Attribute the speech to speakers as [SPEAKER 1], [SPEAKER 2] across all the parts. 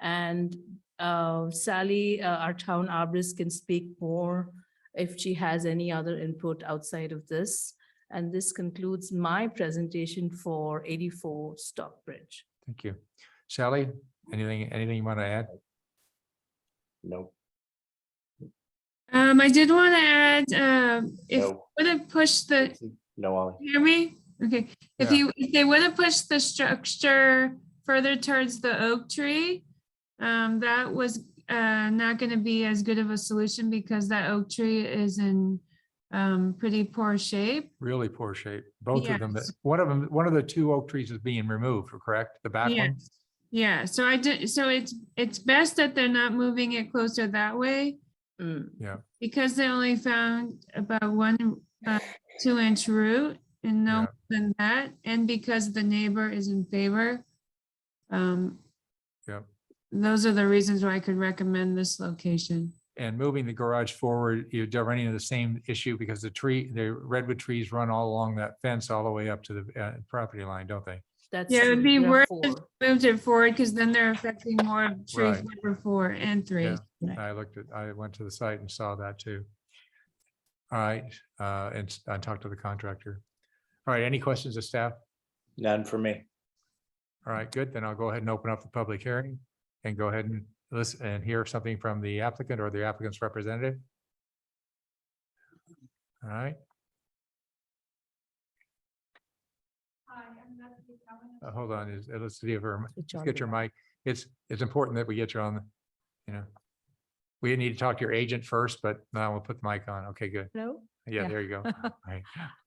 [SPEAKER 1] And uh, Sally, uh, our town arborist can speak more if she has any other input outside of this. And this concludes my presentation for eighty-four Stockbridge.
[SPEAKER 2] Thank you. Sally, anything, anything you want to add?
[SPEAKER 3] No,
[SPEAKER 4] Um, I did want to add, um, if
[SPEAKER 3] no,
[SPEAKER 4] would have pushed the,
[SPEAKER 3] no, Ollie.
[SPEAKER 4] hear me? Okay, if
[SPEAKER 2] Yeah.
[SPEAKER 4] you, if they would have pushed the structure further towards the oak tree, um, that was, uh, not gonna be as good of a solution because that oak tree is in, um, pretty poor shape.
[SPEAKER 2] Really poor shape. Both of them,
[SPEAKER 4] Yes.
[SPEAKER 2] one of them, one of the two oak trees is being removed, correct? The back one?
[SPEAKER 4] Yes. Yeah, so I did, so it's, it's best that they're not moving it closer that way
[SPEAKER 1] Mm.
[SPEAKER 4] because they only found about one, uh, two inch root and no
[SPEAKER 2] Yeah.
[SPEAKER 4] more than that, and because the neighbor is in favor. Um.
[SPEAKER 2] Yep.
[SPEAKER 4] Those are the reasons why I could recommend this location.
[SPEAKER 2] And moving the garage forward, you're running into the same issue because the tree, the redwood trees run all along that fence all the way up to the uh, property line, don't they?
[SPEAKER 1] That's.
[SPEAKER 4] Yeah, it'd
[SPEAKER 1] true.
[SPEAKER 4] be
[SPEAKER 1] There are
[SPEAKER 4] worth
[SPEAKER 1] four.
[SPEAKER 4] it. Moved it forward because then they're affecting more of trees
[SPEAKER 2] Right.
[SPEAKER 4] number four and three.
[SPEAKER 2] Yeah. I looked at, I went to the site and saw that too. All right, uh, and s- I talked to the contractor. All right, any questions of staff?
[SPEAKER 3] None for me.
[SPEAKER 2] All right, good. Then I'll go ahead and open up the public hearing and go ahead and listen and hear something from the applicant or the applicant's representative. All right, uh, hold on, is, uh, let's see if her,
[SPEAKER 1] Switch
[SPEAKER 2] let's
[SPEAKER 1] on
[SPEAKER 2] get your
[SPEAKER 1] the-
[SPEAKER 2] mic. It's, it's important that we get you on, the you know. We need to talk to your agent first, but now we'll put the mic on. Okay, good.
[SPEAKER 5] Hello,
[SPEAKER 2] Yeah,
[SPEAKER 5] Yeah.
[SPEAKER 2] there you go. All right,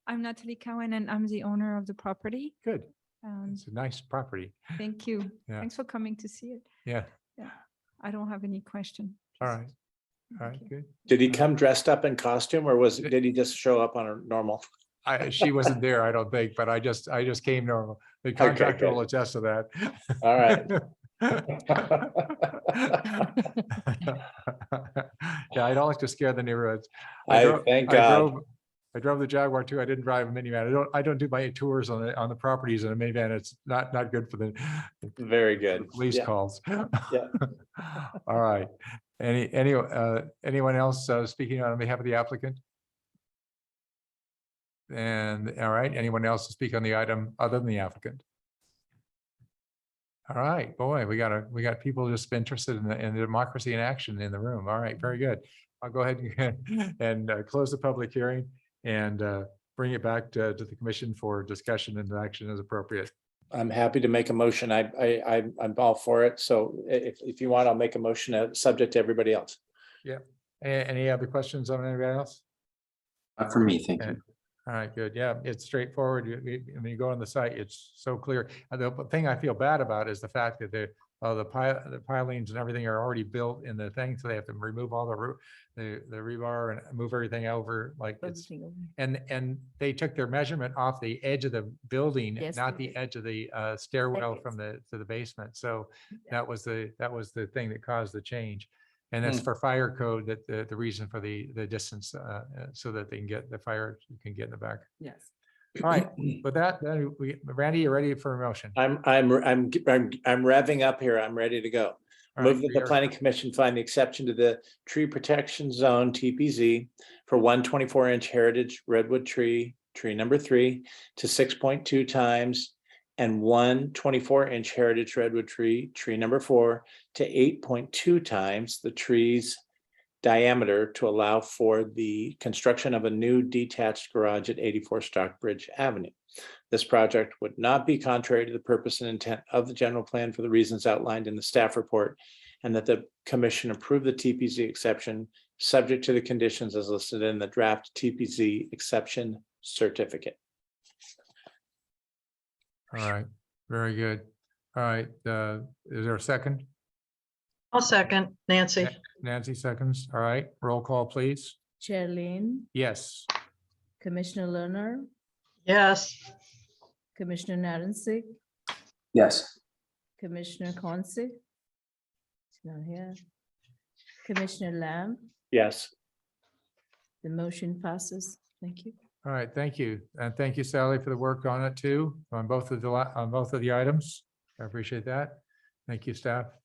[SPEAKER 5] I'm Natalie Cowan and I'm the owner of the property.
[SPEAKER 2] good.
[SPEAKER 5] Um,
[SPEAKER 2] It's a nice property.
[SPEAKER 5] Thank you.
[SPEAKER 2] Yeah.
[SPEAKER 5] Thanks for coming to see it.
[SPEAKER 2] Yeah,
[SPEAKER 5] I don't have any question.
[SPEAKER 2] all
[SPEAKER 5] Just-
[SPEAKER 2] right, all
[SPEAKER 5] Thank
[SPEAKER 2] right,
[SPEAKER 5] you.
[SPEAKER 2] good.
[SPEAKER 3] Did he come dressed up in costume or was, did he just show up on a normal?
[SPEAKER 2] I, she wasn't there, I don't think, but I just, I just came normal. The
[SPEAKER 3] Okay,
[SPEAKER 2] contractor
[SPEAKER 3] good.
[SPEAKER 2] will attest to that.
[SPEAKER 3] All right.
[SPEAKER 2] Yeah, I don't like to scare the neighborhoods. I
[SPEAKER 3] I,
[SPEAKER 2] drove-
[SPEAKER 3] thank
[SPEAKER 2] I
[SPEAKER 3] God.
[SPEAKER 2] drove, I drove the Jaguar too. I didn't drive a minivan. I don't, I don't do my tours on the, on the properties in a minivan. It's not, not good for the
[SPEAKER 3] Very
[SPEAKER 2] the
[SPEAKER 3] good.
[SPEAKER 2] police
[SPEAKER 3] Yeah.
[SPEAKER 2] calls. All right. Any, any, uh, anyone else uh, speaking on behalf of the applicant? And, all right, anyone else to speak on the item other than the applicant? All right, boy, we got a, we got people just interested in the, in the democracy in action in the room. All right, very good. I'll go ahead and, and uh, close the public hearing and uh, bring it back to, to the commission for discussion and action as appropriate.
[SPEAKER 3] I'm happy to make a motion. I, I, I'm, I'm all for it. So i- if, if you want, I'll make a motion, uh, subject to everybody else.
[SPEAKER 2] A- Any other questions on anybody else?
[SPEAKER 6] Not for me, thank
[SPEAKER 2] Yeah.
[SPEAKER 6] you.
[SPEAKER 2] All right, good. Yeah, it's straightforward. You- you- When you go on the site, it's so clear. And the thing I feel bad about is the fact that the, uh, the pile, the pilings and everything are already built in the thing, so they have to remove all the roo- the, the rebar and move everything over like it's,
[SPEAKER 1] Everything over.
[SPEAKER 2] and, and they took their measurement off the edge of the building,
[SPEAKER 1] Yes,
[SPEAKER 2] not
[SPEAKER 1] they
[SPEAKER 2] the
[SPEAKER 1] did.
[SPEAKER 2] edge of the uh, stairwell
[SPEAKER 1] Staircase.
[SPEAKER 2] from the, to the basement. So that was the, that was the thing that caused the change. And that's
[SPEAKER 3] Hmm.
[SPEAKER 2] for fire code, that the, the reason for the, the distance, uh, uh, so that they can get, the fire can get in the back.
[SPEAKER 1] Yes.
[SPEAKER 2] All right, with that, then we, Randy, you ready for a motion?
[SPEAKER 3] I'm, I'm, I'm, I'm, I'm revving up here. I'm ready to go.
[SPEAKER 2] All right,
[SPEAKER 3] Move that
[SPEAKER 2] we
[SPEAKER 3] the
[SPEAKER 2] are-
[SPEAKER 3] planning commission find the exception to the tree protection zone TPZ for one 24 inch heritage redwood tree, tree number three to six point two times and one 24 inch heritage redwood tree, tree number four to eight point two times the tree's diameter to allow for the construction of a new detached garage at eighty-four Stockbridge Avenue. This project would not be contrary to the purpose and intent of the general plan for the reasons outlined in the staff report and that the commission approve the TPZ exception, subject to the conditions as listed in the draft TPZ exception certificate.
[SPEAKER 2] All right, very good. All right, uh, is there a second?
[SPEAKER 7] I'll second, Nancy.
[SPEAKER 2] Nancy seconds, all right, roll call, please.
[SPEAKER 1] Chair Lane,
[SPEAKER 2] Yes,
[SPEAKER 1] Commissioner Lerner,
[SPEAKER 7] Yes,
[SPEAKER 1] Commissioner Narensec,
[SPEAKER 6] Yes,
[SPEAKER 1] Commissioner Consick. He's not here. Commissioner Lamb,
[SPEAKER 3] Yes,
[SPEAKER 1] the motion passes. Thank you.
[SPEAKER 2] all right, thank you. And thank you, Sally, for the work on it too, on both of the, li- on both of the items. I appreciate that. Thank you, staff.